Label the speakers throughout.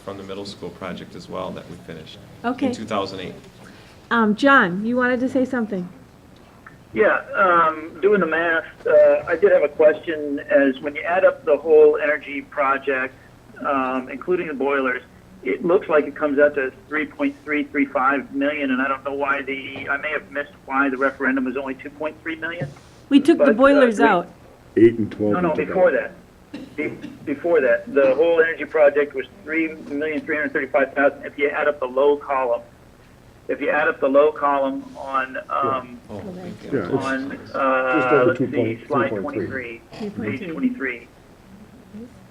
Speaker 1: from the middle school project as well that we finished.
Speaker 2: Okay.
Speaker 1: In 2008.
Speaker 2: Um, John, you wanted to say something?
Speaker 3: Yeah, um, doing the math, uh, I did have a question as when you add up the whole energy project, um, including the boilers, it looks like it comes out to 3.335 million, and I don't know why the, I may have missed why the referendum was only 2.3 million?
Speaker 2: We took
Speaker 3: But,
Speaker 2: the
Speaker 3: uh,
Speaker 2: boilers
Speaker 3: we-
Speaker 2: out.
Speaker 4: Eight and twelve.
Speaker 3: No, no, before that. Be- Before that, the whole energy project was three million three hundred thirty-five thousand. If you add up the low column, if you add up the low column on, um,
Speaker 1: Oh, thank
Speaker 4: Yeah,
Speaker 1: you.
Speaker 4: it's-
Speaker 3: on,
Speaker 4: Just
Speaker 3: uh,
Speaker 4: over
Speaker 3: let's
Speaker 4: 2
Speaker 3: see,
Speaker 4: point-
Speaker 3: slide
Speaker 4: 2.3.
Speaker 3: 23, page 23.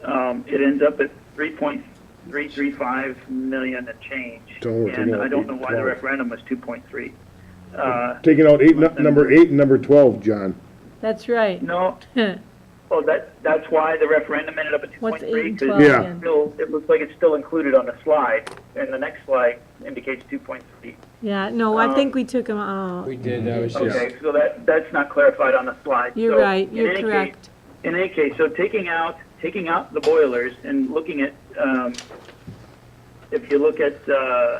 Speaker 3: Um, It ends up at 3.335 million and change.
Speaker 4: Don't worry,
Speaker 3: And
Speaker 4: no,
Speaker 3: I don't know why the
Speaker 4: 8.12.
Speaker 3: referendum was 2.3. Uh,
Speaker 4: Taking out eight, nu- number eight and number twelve, John.
Speaker 2: That's right.
Speaker 3: No,
Speaker 2: What's
Speaker 3: oh, that, that's why the referendum ended up at 2.3.
Speaker 2: eight and
Speaker 3: 'cause
Speaker 2: twelve
Speaker 4: Yeah.
Speaker 2: again?
Speaker 3: Still, it looks like it's still included on the slide, and the next slide indicates 2.3.
Speaker 2: Yeah, no, I
Speaker 3: Um,
Speaker 2: think we took them out.
Speaker 5: We did, uh, that was just,
Speaker 3: Okay, so that, that's not clarified on the slide.
Speaker 2: You're
Speaker 3: So,
Speaker 2: right,
Speaker 3: in
Speaker 2: you're
Speaker 3: any case,
Speaker 2: correct.
Speaker 3: In any case, so taking out, taking out the boilers and looking at, um, if you look at, uh,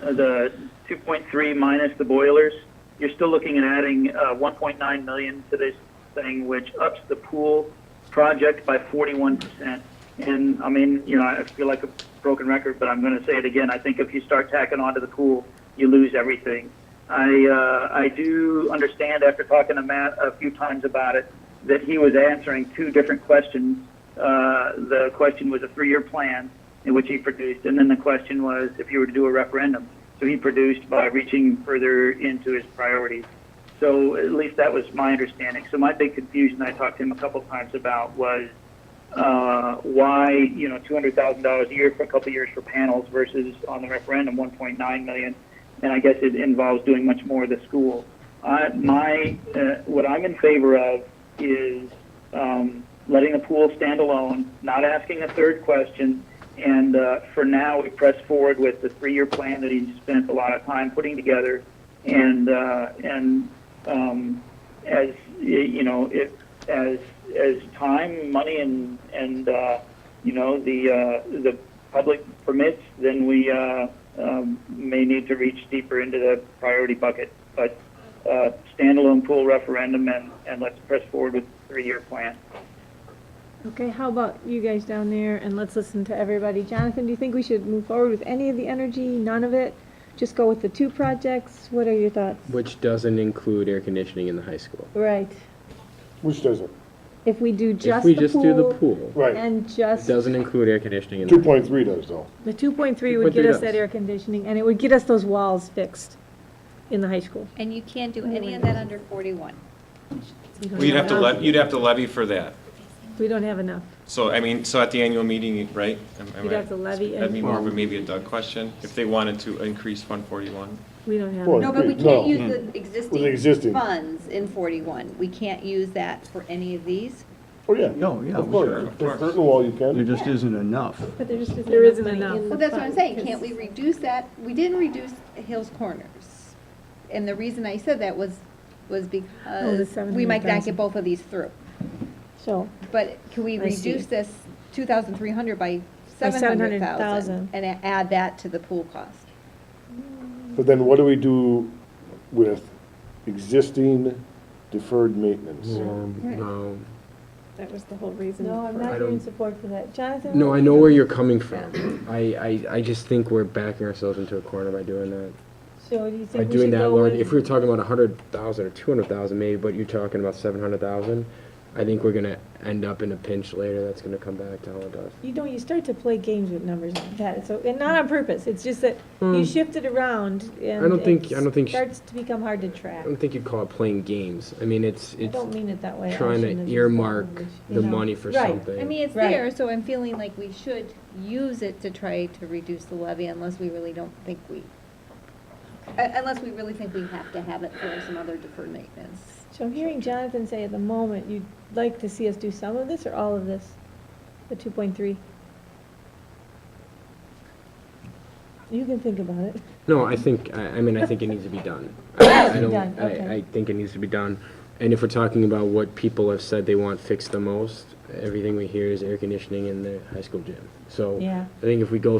Speaker 3: the 2.3 minus the boilers, you're still looking at adding, uh, 1.9 million to this thing, which ups the pool project by 41%. And, I mean, you know, I feel like a broken record, but I'm gonna say it again. I think if you start tacking onto the pool, you lose everything. I, uh, I do understand after talking to Matt a few times about it, that he was answering two different questions. Uh, the question was a three-year plan in which he produced, and then the question was if you were to do a referendum. So he produced by reaching further into his priorities. So at least that was my understanding. So my big confusion I talked to him a couple times about was uh, why you know two hundred thousand dollars a year for a couple of years for panels versus on the referendum one point nine million, and I guess it involves doing much more of the school. I, my uh, what I'm in favor of is um, letting the pool stand alone, not asking a third question, and uh, for now we press forward with the three-year plan that he spent a lot of time putting together, and uh, and um, as you know, it, as as time, money, and and uh, you know the uh, the public permits, then we uh, um, may need to reach deeper into the priority bucket. But uh, standalone pool referendum, and and let's press forward with three-year plan.
Speaker 2: Okay, how about you guys down there and let's listen to everybody. Jonathan, do you think we should move forward with any of the energy, none of it? Just go with the two projects? What are your thoughts?
Speaker 5: which doesn't include air conditioning in the high school.
Speaker 2: Right,
Speaker 4: Which doesn't.
Speaker 2: if we do
Speaker 5: If
Speaker 2: just
Speaker 5: we
Speaker 2: the
Speaker 5: just do the
Speaker 2: pool
Speaker 5: pool,
Speaker 4: Right.
Speaker 2: and
Speaker 5: it
Speaker 2: just,
Speaker 5: doesn't include air conditioning in the.
Speaker 4: Two point three does though.
Speaker 2: the two point three would
Speaker 5: 2.3
Speaker 2: get us
Speaker 5: does.
Speaker 2: that air conditioning and it would get us those walls fixed in the high school.
Speaker 6: And you can't do any of that under 41.
Speaker 2: We don't
Speaker 1: Well, you'd have to,
Speaker 2: enough.
Speaker 1: le- you'd have to levy for that.
Speaker 2: We don't have enough.
Speaker 1: So, I mean, so at the annual meeting, right? Am- am
Speaker 2: You'd
Speaker 1: I-
Speaker 2: have to levy
Speaker 1: That'd be
Speaker 2: and
Speaker 1: more of a maybe a Doug question, if they wanted to increase Fund 41.
Speaker 2: we don't have
Speaker 4: Well,
Speaker 2: enough.
Speaker 6: No, but we can't use the
Speaker 4: the existing.
Speaker 6: existing funds in 41. We can't use that for any of these.
Speaker 4: Oh, yeah.
Speaker 7: No, yeah,
Speaker 4: Of
Speaker 1: sure,
Speaker 4: course.
Speaker 1: of
Speaker 4: The
Speaker 1: course.
Speaker 4: curtain wall you
Speaker 7: there
Speaker 4: can.
Speaker 7: just isn't enough.
Speaker 8: But there just isn't.
Speaker 2: There isn't
Speaker 8: money
Speaker 2: enough.
Speaker 8: in the
Speaker 6: Well, that's what I'm
Speaker 8: fund,
Speaker 6: saying,
Speaker 8: 'cause-
Speaker 6: can't we reduce that? We didn't reduce Hills Corners. And the reason I said that was, was
Speaker 2: Oh,
Speaker 6: because we might not
Speaker 2: 700,000.
Speaker 6: get both of these through.
Speaker 2: So,
Speaker 6: But can we
Speaker 2: I see.
Speaker 6: reduce this 2,300 by
Speaker 2: By 700,000.
Speaker 6: 700,000? And a- add that to the pool cost?
Speaker 4: But then what do we do with existing deferred maintenance?
Speaker 5: No,
Speaker 8: That was the whole reason.
Speaker 2: no, I'm
Speaker 8: for-
Speaker 2: not
Speaker 5: I
Speaker 2: here in
Speaker 5: don't-
Speaker 2: support for that. Jonathan?
Speaker 5: no, I know where you're coming from. I, I, I just think we're backing ourselves into a corner by doing that.
Speaker 2: So do you
Speaker 5: By
Speaker 2: think we
Speaker 5: doing
Speaker 2: should
Speaker 5: that,
Speaker 2: go
Speaker 5: large,
Speaker 2: with-
Speaker 5: if we were talking about a hundred thousand or two hundred thousand maybe, but you're talking about seven hundred thousand, I think we're gonna end up in a pinch later that's gonna come back to haunt us.
Speaker 2: You don't, you start to play games with numbers like that, so, and not on purpose, it's just that you shift it around and.
Speaker 5: Hmm. I don't think-
Speaker 2: it
Speaker 5: I don't think sh-
Speaker 2: Starts to become hard to
Speaker 5: I
Speaker 2: track.
Speaker 5: don't think you'd call it playing games. I mean, it's,
Speaker 2: I
Speaker 5: it's
Speaker 2: don't mean it that way. I
Speaker 5: trying
Speaker 2: shouldn't have used that
Speaker 5: to earmark
Speaker 2: language, you
Speaker 5: the
Speaker 2: know.
Speaker 5: money for
Speaker 2: Right.
Speaker 5: something.
Speaker 6: I mean, it's
Speaker 2: Right.
Speaker 6: there, so I'm feeling like we should use it to try to reduce the levy unless we really don't think we, uh, unless we really think we have to have it for some other deferred maintenance.
Speaker 2: So I'm hearing Jonathan say at the moment, you'd like to see us do some of this or all of this, the two point three? You can think about it.
Speaker 5: No, I think, I, I mean, I think it needs to be done. I- I don't-
Speaker 2: Done,
Speaker 5: I-
Speaker 2: okay.
Speaker 5: I think it needs to be done. And if we're talking about what people have said they want fixed the most, everything we hear is air conditioning in the high school gym. So
Speaker 2: Yeah.
Speaker 5: I think if we go